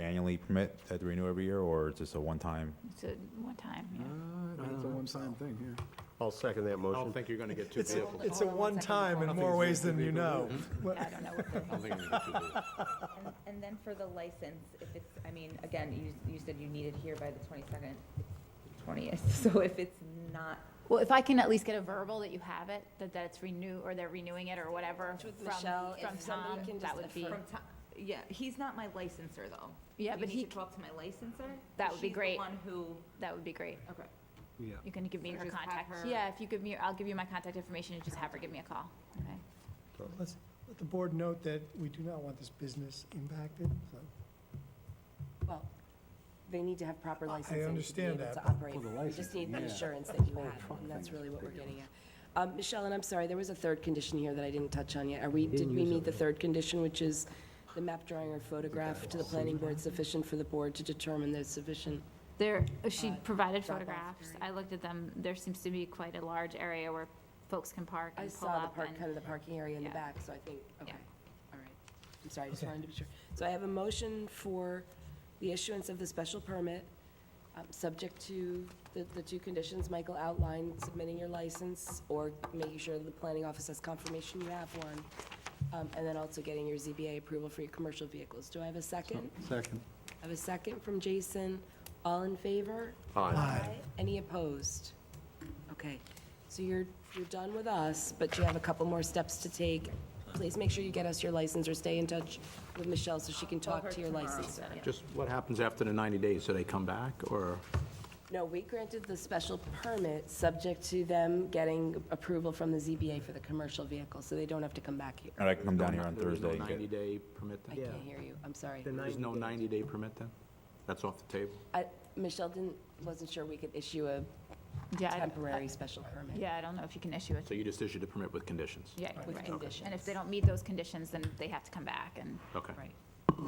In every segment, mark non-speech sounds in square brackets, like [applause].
annually permit that they renew every year, or is this a one-time? It's a one time, yeah. It's a one-time thing here. I'll second that I don't motion. think you're going to get two It's, vehicles. it's a Hold on one second. one-time in Nothing's more ways gonna than you be know. Yeah, I don't know what I don't think you're going to get [laughs] two vehicles. And- And then for the license, if it's, I mean, again, you, you said you need it here by the twenty-second, twentieth, [laughs] so if it's not, [laughs] Well, if I can at least get a verbal that you have it, that, that it's renew, or they're renewing it or whatever With from, Michelle, if from somebody Tom, can that just would be, from ti- yeah, he's not my licenser, though. Yeah, You but need he to c- talk to my licenser? That would be She's the great. one who, that would be great. okay. Yeah. You can give me So her just have contact. her- Yeah, if you give me, I'll give you my contact information and just have her give me a call, okay? Let's, let the board note that we do not want this business impacted, so. Well, they need to have proper licensing to be understand able that, to but- Oh, operate. For the You just need the licensing, yeah. assurance that you whole have, truck and that's thing is really what we're big. getting at. Um, Michelle, and I'm sorry, there was a third condition here that I didn't touch on yet. Are we, did we meet the third condition, which is the map drawing or photograph to the planning board sufficient for the board to determine there's sufficient? There, uh, Uh, she provided drop-off photographs. I looked at them. There seems to be quite a large area where folks can park I and pull saw the up park, kind and, of the parking area in the Yeah. back, so I think, okay, Yeah. all right. I'm sorry, I just wanted to be sure. So I have a motion for the issuance of the special permit, um, subject to the, the two conditions Michael outlined, submitting your license or making sure that the planning office has confirmation you have one, um, and then also getting your ZBA approval for your commercial vehicles. Do I have a second? Second. I have a second from Jason. All in favor? Aye. Any opposed? Okay, so you're, you're done with us, but you have a couple more steps to take. Please make sure you get us your license or stay in touch with Michelle so she can talk her to your tomorrow, license. yeah. Just what happens after the 90 days? Do they come back, or? No, we granted the special permit, subject to them getting approval from the ZBA for the commercial vehicle, so they don't have to come back here. And I can come down here on There is no Thursday and get, 90-day permit I then? can't hear you, I'm sorry. There's no 90-day permit then? That's off the table? I- Michelle didn't, wasn't sure we could issue a yeah, I- temporary special permit yeah, I don't know if you can issue it. So you just issued a permit with conditions? Yeah, with right. conditions. And if they don't meet those conditions, then they have to come back and, Okay. Right.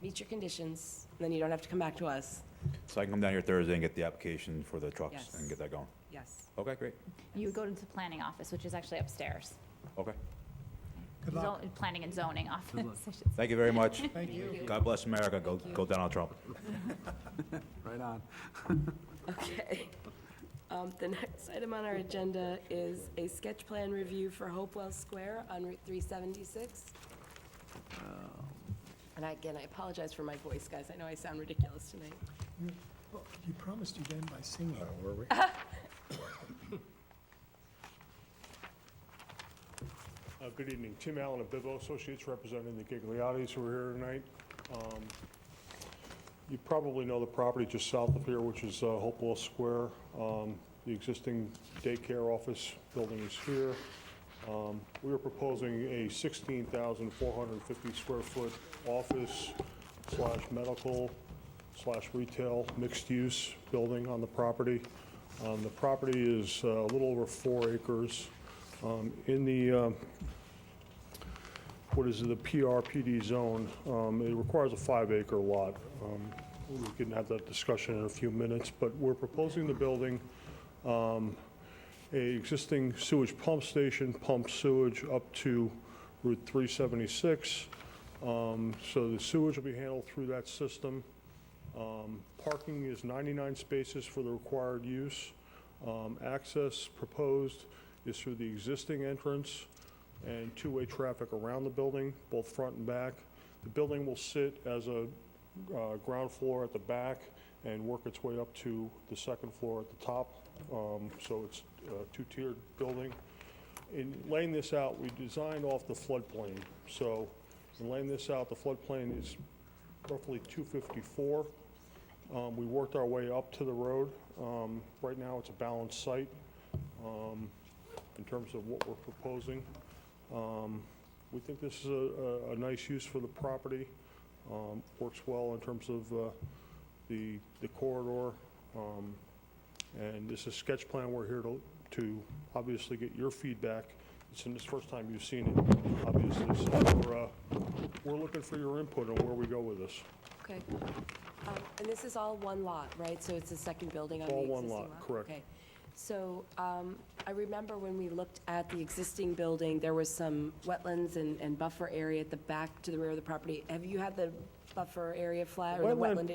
Meet your conditions, then you don't have to come back to us. so I can come down here Thursday and get the application for the trucks Yes. and get that going. Yes. Okay, great. you would go to the planning office, which is actually upstairs. Okay. Good luck. Zon- Planning and zoning office. [laughs] I should Thank you very much. Thank you. God bless America. Go, go Donald Trump. Right on. Okay. Um, The next item on our agenda is a sketch plan review for Hopewell Square on Route 376. And I- again, I apologize for my voice, guys. I know I sound ridiculous tonight. Well, You promised you'd end by singing. Uh, Good evening. Tim Allen of Bibbo Associates, representing the Gigliotti's who are here tonight. Um, You probably know the property just south of here, which is uh, Hopewell Square. Um, The existing daycare office building is here. Um, We are proposing a 16,450 square foot office slash medical slash retail mixed-use building on the property. Um, The property is uh, a little over four acres. Um, In the, um, what is it, the PRPD zone, um, it requires a five-acre lot. Um, We can have that discussion in a few minutes, but we're proposing the building, um, a existing sewage pump station, pump sewage up to Route 376. Um, So the sewage will be handled through that system. Um, Parking is 99 spaces for the required use. Um, Access proposed is through the existing entrance and two-way traffic around the building, both front and back. The building will sit as a uh, ground floor at the back and work its way up to the second floor at the top. Um, So it's a two-tiered building. In laying this out, we designed off the floodplain. So in laying this out, the floodplain is roughly 254. Um, We worked our way up to the road. Um, Right now, it's a balanced site um, in terms of what we're proposing. Um, We think this is a- a, a nice use for the property. Um, Works well in terms of uh, the the corridor. Um, And this is sketch plan. We're here to, to obviously get your feedback. It's the first time you've seen it, obviously. So we're, uh, we're looking for your input on where we go with this. Okay. Um, And this is all one lot, right? So it's the second building on the All existing one lot? lot, correct. Okay. So um, I remember when we looked at the existing building, there was some wetlands and and buffer area at the back to the rear of the property. Have you had the buffer area flag, or the Wetland- wetland